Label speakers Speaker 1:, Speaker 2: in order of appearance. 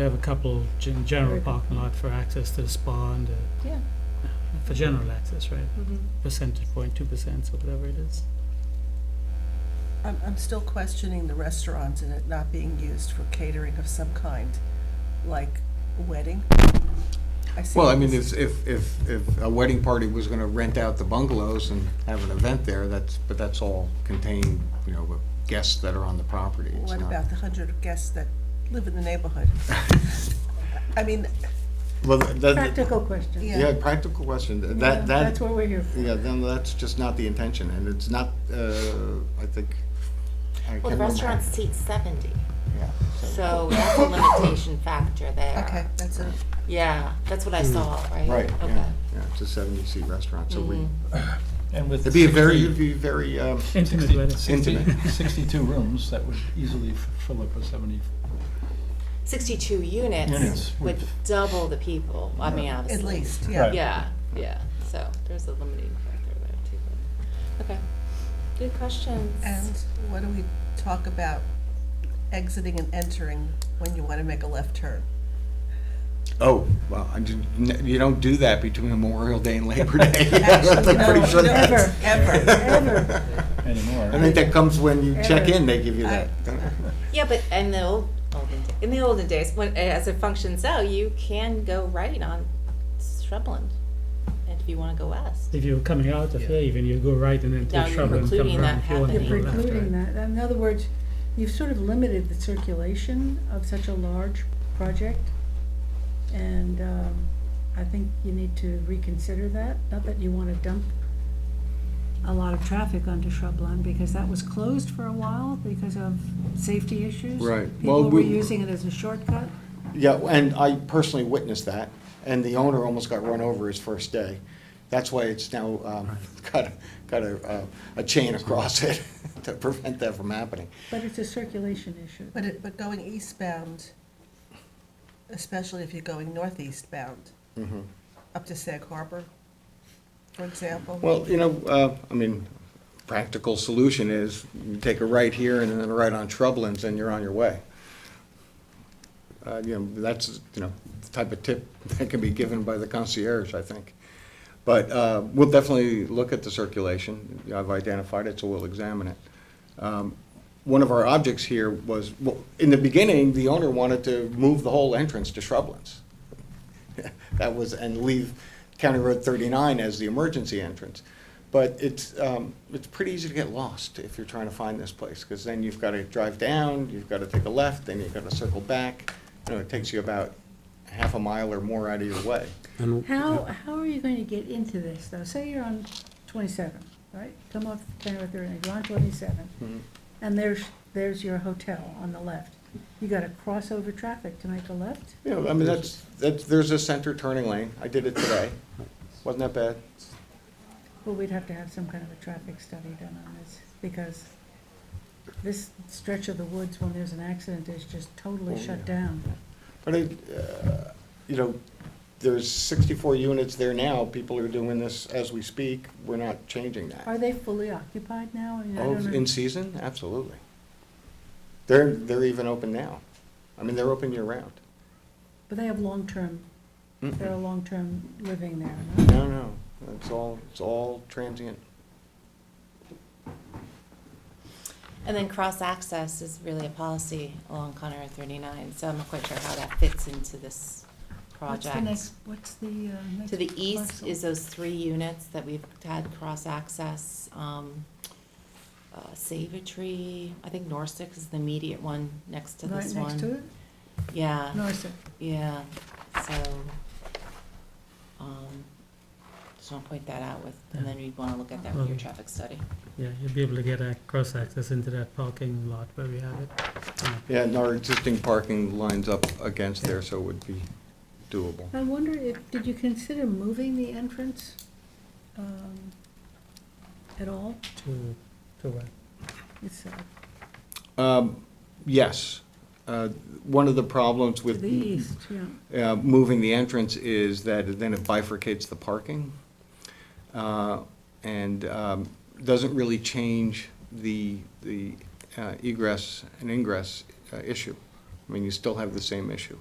Speaker 1: We have a couple in general parking lot for access to the spa and, uh,
Speaker 2: Yeah.
Speaker 1: for general access, right?
Speaker 2: Mhm.
Speaker 1: Percentage point, two percent, or whatever it is.
Speaker 3: I'm, I'm still questioning the restaurant and it not being used for catering of some kind, like a wedding. see
Speaker 4: Well, I
Speaker 3: it
Speaker 4: mean,
Speaker 3: as-
Speaker 4: if, if, if if a wedding party was gonna rent out the bungalows and have an event there, that's, but that's all contained, you know, with guests that are on the property. It's
Speaker 3: What
Speaker 4: not-
Speaker 3: about the hundred guests that live in the neighborhood? I mean,
Speaker 4: Well, that,
Speaker 2: Practical question.
Speaker 3: Yeah.
Speaker 4: yeah, practical question, Th-
Speaker 2: Yeah,
Speaker 4: that, that,
Speaker 2: That's what we're here for.
Speaker 4: yeah, then that's just not the intention, and it's not, uh, I think, I can't
Speaker 5: Well, the
Speaker 4: remember.
Speaker 5: restaurant seats 70,
Speaker 4: Yeah,
Speaker 5: so that's a limitation factor there.
Speaker 3: okay, that's a,
Speaker 5: Yeah, that's what I saw, right?
Speaker 4: Right,
Speaker 5: Okay.
Speaker 4: yeah, yeah, it's a seventy-seat restaurant, so we,
Speaker 5: Mhm.
Speaker 6: And with
Speaker 4: it'd be a very,
Speaker 6: 60
Speaker 4: it'd be very, um,
Speaker 1: Intimate
Speaker 6: 60
Speaker 1: wedding.
Speaker 6: 60
Speaker 4: Intimate.
Speaker 6: 62 rooms, that would easily f- fill up a 70.
Speaker 5: 62 units
Speaker 6: Units
Speaker 5: with
Speaker 6: would-
Speaker 5: double the people, I mean,
Speaker 3: at
Speaker 5: obviously.
Speaker 3: least, yeah.
Speaker 6: Right.
Speaker 5: Yeah, yeah, so there's a limiting factor there too. but- Okay, good questions.
Speaker 3: And what do we talk about exiting and entering when you wanna make a left turn?
Speaker 4: Oh, well, I didn't- n- you don't do that between Memorial Day and Labor Day.
Speaker 3: Actually,
Speaker 4: I'm pretty
Speaker 3: no,
Speaker 4: sure
Speaker 3: no,
Speaker 4: that's-
Speaker 3: Ever.
Speaker 2: Ever.
Speaker 6: Anymore.
Speaker 4: I think that comes when you check
Speaker 2: Ever.
Speaker 4: in, they give you that.
Speaker 5: Yeah, but in the old, olden, da- in the olden days, when, as it functions out, you can go right on Shrubland, and if you want to go west.
Speaker 1: If you're coming out of
Speaker 6: Yeah.
Speaker 1: here, even you go right and then
Speaker 5: Now
Speaker 1: take
Speaker 5: you're
Speaker 1: trouble and come
Speaker 5: precluding
Speaker 1: around
Speaker 5: that
Speaker 1: if you want to
Speaker 2: You're
Speaker 5: Yeah.
Speaker 1: go left,
Speaker 2: precluding
Speaker 1: right?
Speaker 2: that. In other words, you've sort of limited the circulation of such a large project. And um, I think you need to reconsider that. Not that you want to dump a lot of traffic onto Shrubland, because that was closed for a while because of safety issues.
Speaker 4: Right. Well,
Speaker 2: People were
Speaker 4: we-
Speaker 2: using it as a shortcut.
Speaker 4: Yeah, and I personally witnessed that, and the owner almost got run over his first day. That's why it's now um, got, a- got a, uh, a chain across it to prevent that from happening.
Speaker 2: But it's a circulation issue.
Speaker 3: But it, but going eastbound, especially if you're going northeastbound,
Speaker 4: Mm-hmm.
Speaker 3: up to Sag Harbor, for example.
Speaker 4: Well, you know, uh, I mean, practical solution is you take a right here and then a right on Shrublands, and you're on your way. Uh, You know, that's, you know, the type of tip that can be given by the concierge, I think. But uh, we'll definitely look at the circulation. I've identified it, so we'll examine it. Um, One of our objects here was, well, in the beginning, the owner wanted to move the whole entrance to Shrublands that was, and leave County Road 39 as the emergency entrance. But it's, um, it's pretty easy to get lost if you're trying to find this place, because then you've got to drive down, you've got to take a left, then you've got to circle back. You know, it takes you about half a mile or more out of your way.
Speaker 2: How, how are you going to get into this, though? Say you're on 27, right? Come off Canada 30, you're on
Speaker 4: Mm-hmm.
Speaker 2: 27, and there's, there's your hotel on the left. You got to cross over traffic to make a left?
Speaker 4: You know, I mean, that's, that's, there's a center turning lane. I did it today. Wasn't that bad?
Speaker 2: Well, we'd have to have some kind of a traffic study done on this, because this stretch of the woods, when there's an accident, is just totally
Speaker 4: Oh,
Speaker 2: shut
Speaker 4: yeah.
Speaker 2: down.
Speaker 4: But I, uh, you know, there's 64 units there now. People are doing this as we speak. We're not changing that.
Speaker 2: Are they fully occupied now? I mean, I
Speaker 4: Oh,
Speaker 2: don't know.
Speaker 4: in season, absolutely. They're, they're even open now. I mean, they're open year-round.
Speaker 2: But they have long-term, they're a
Speaker 4: No,
Speaker 2: long-term living there, no?
Speaker 4: no, it's all, it's all transient.
Speaker 5: And then cross-access is really a policy along Conner Road 39, so I'm not quite sure how that fits into this
Speaker 2: What's the
Speaker 5: project.
Speaker 2: next- What's the uh, next?
Speaker 5: To the east
Speaker 2: parcel?
Speaker 5: is those three units that we've had cross-access, um, uh, Save a Tree, I think Norsec is the immediate one next to
Speaker 2: Right
Speaker 5: this one. uh,
Speaker 2: next to it?
Speaker 5: Yeah.
Speaker 2: Norset.
Speaker 5: Yeah, so, um, just wanna point that out with, and then we'd wanna look at that with your traffic study.
Speaker 1: Yeah, you'll be able to get a cross-access into that parking lot where we have it. Yeah.
Speaker 4: Yeah, and our existing parking lines up against there, so it would be doable.
Speaker 2: I wonder if, did you consider moving the entrance um, at all?
Speaker 1: To, to what?
Speaker 2: It's uh,
Speaker 4: Um, Yes. Uh, One of the problems
Speaker 2: to
Speaker 4: with
Speaker 2: the east, yeah.
Speaker 4: uh, moving the entrance is that then it bifurcates the parking uh, and um, doesn't really change the, the uh, egress and ingress uh, issue. I mean, you still have the same issue.